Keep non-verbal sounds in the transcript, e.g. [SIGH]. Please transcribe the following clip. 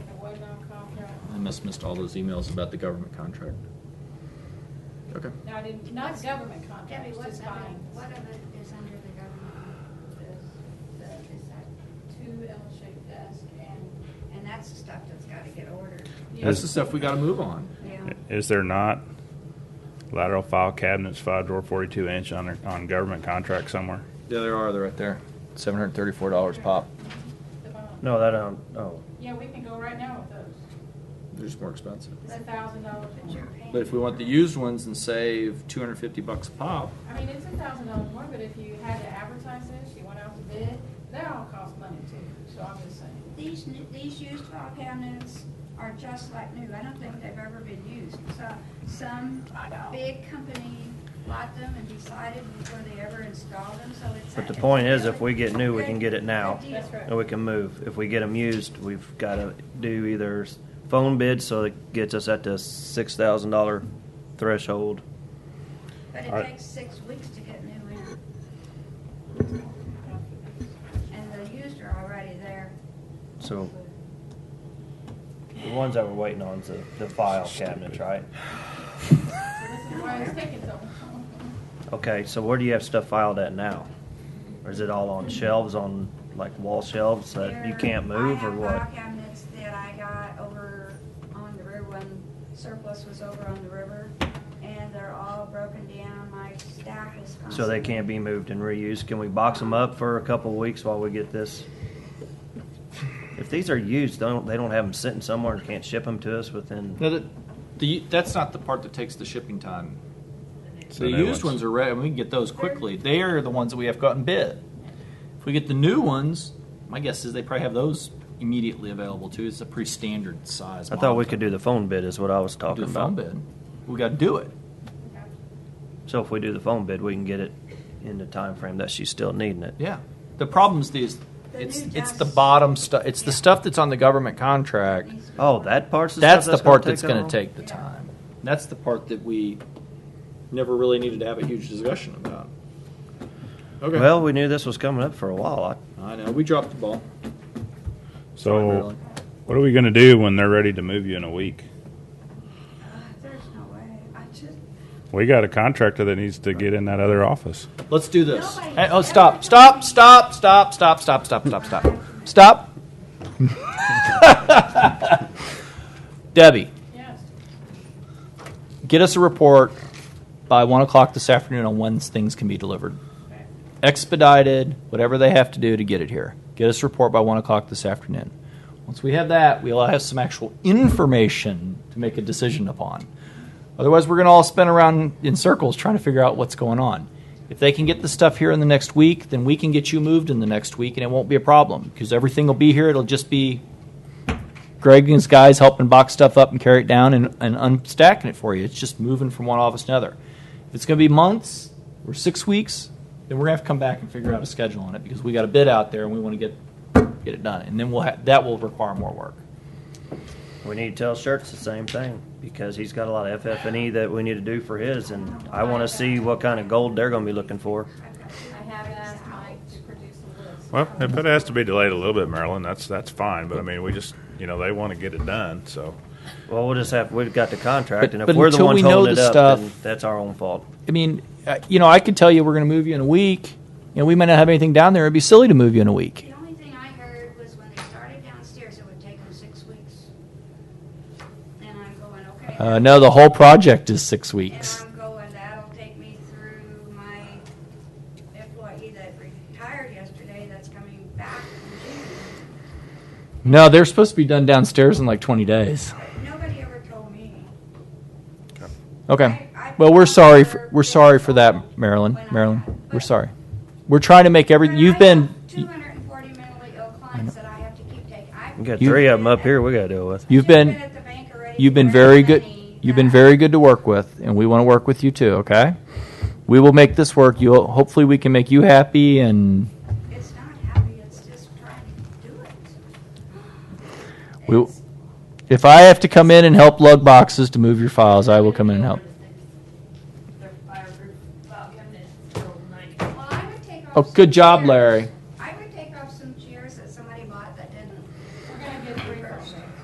must missed all those emails about the government contract. Okay. No, I didn't, not government contracts, Debbie, just what other, fines. what of it is under the government? The- the- is that- Two L-shaped desk and. And that's the stuff that's gotta get ordered. That's the stuff we gotta move on. Yeah. Is there not lateral file cabinets, five drawer, forty-two inch on, on government contract somewhere? Yeah, there are, they're right there. Seven hundred and thirty-four dollars pop. The bond. No, that, um, oh, Yeah, we can go right now with those. They're just more expensive. It's a thousand dollars But you're more. paying- But if we want the used ones and save two hundred and fifty bucks a pop, I mean, it's a thousand dollars more, but if you had to advertise this, you went out to bid, that all costs money too, so I'm just saying. These, new- these used file cabinets are just like new. I don't think they've ever been used. So some big company bought them and decided before they ever installed them, so it's. But the a- point is, if we get new, we can get it now. Good deal. That's right. and we can move. If we get them used, we've gotta do either s- phone bid, so it gets us at the six thousand dollar threshold. But All it right. takes six weeks to get new in. And the used are already there. So the ones that we're waiting on is the, the file cabinets, right? So this is why it's taking so long. [LAUGHS] Okay, so where do you have stuff filed at now? Or is it all on shelves, on like wall shelves that you There- can't move or I have what? file cabinets that I got over on the river when surplus was over on the river, and they're all broken down. My stack is constantly. So they can't be moved and reused. Can we box them up for a couple weeks while we get this? If these are used, don't they don't have them sitting somewhere and can't ship them to us within? no, that, the, that's not the part that takes the shipping time. So The new used ones ones. are ready, we can get those quickly. They are the ones that we have gotten bid. If we get the new ones, my guess is they probably have those immediately available too. It's a pretty standard size. I thought we monitor. could do the phone bid is what I was do talking the phone about. bid. We got to do it. So if we do the phone bid, we can get it in the time frame that she's still needing it. Yeah. The problem's these. The It's new it's the desks. bottom stuff. It's the Yeah. stuff that's on the government contract. Needs to be Oh, ordered. that part's the That's stuff the part gonna that's going that to take the Yeah. time. That's the part that we never really needed to have a huge discussion about. long? Well, we knew this was coming up for a while. I know we dropped the ball. So, what are we gonna do when they're ready to move you in a week? Uh, There's no way. I just. We got a contractor that needs to get in that other office. Let's do this. Nobody- Hey, oh, stop! Stop! Stop! Stop! Stop! Stop! Stop! Stop! Stop! [LAUGHS] Stop! [LAUGHS] Debbie, Yes, get us a report by one o'clock this afternoon on when things can be delivered. okay. expedited, whatever they have to do to get it here. Get us a report by one o'clock this afternoon. Once we have that, we'll have some actual information to make a decision upon. Otherwise, we're going to all spin around in circles trying to figure out what's going on. If they can get the stuff here in the next week, then we can get you moved in the next week, and it won't be a problem because everything will be here. It'll just be Greg and his guys helping box stuff up and carry it down and, and unstacking it for you. It's just moving from one office to another. If it's going to be months or six weeks, then we're going to have to come back and figure out a schedule on it because we got a bid out there and we want to get get it done. And then we'll ha- that will require more work. We need to tell Shirts the same thing because he's got a lot of FF and E that we need to do for his, and I want to see what kind of gold they're going to be looking for. I have asked Mike to produce a list. Well, if it has to be delayed a little bit, Marilyn, that's, that's fine, but I mean, we just, you know, they wanna get it done, so. Well, we'll just have we've got the contract, But- and if but we're the until ones we know holding it the up, stuff- then that's our own fault. I mean, uh, you know, I could tell you we're going to move you in a week, and we might not have anything down there. It'd be silly to move you in a week. The only thing I heard was when they started downstairs, it would take them six weeks. And I'm going, okay. Uh, no, the whole project is six And weeks. I'm going, that'll take me through my employee that retired yesterday that's coming back in June. No, they're supposed to be done downstairs in like 20 days. But nobody ever told me. Okay. Well, we're sorry. For, we're sorry for that, Marilyn. Marilyn, we're sorry. We're trying to make every. But You've I been. have 240 mentally ill clients that I have to keep taking. I've- We got You- three of them up here. We got to deal with. You've I've been. at the bank already You've been for very good. money You've been that- very good to work with, and we want to work with you too. Okay. We will make this work. You'll. Hopefully, we can make you happy. And It's not happy, it's just trying to do it. We- It's- if I have to come in and help lug boxes to move your files, I will come in and help. Their fireproof, well, cabinet is still nice. Well, I would take off Oh, some good job, chairs. Larry.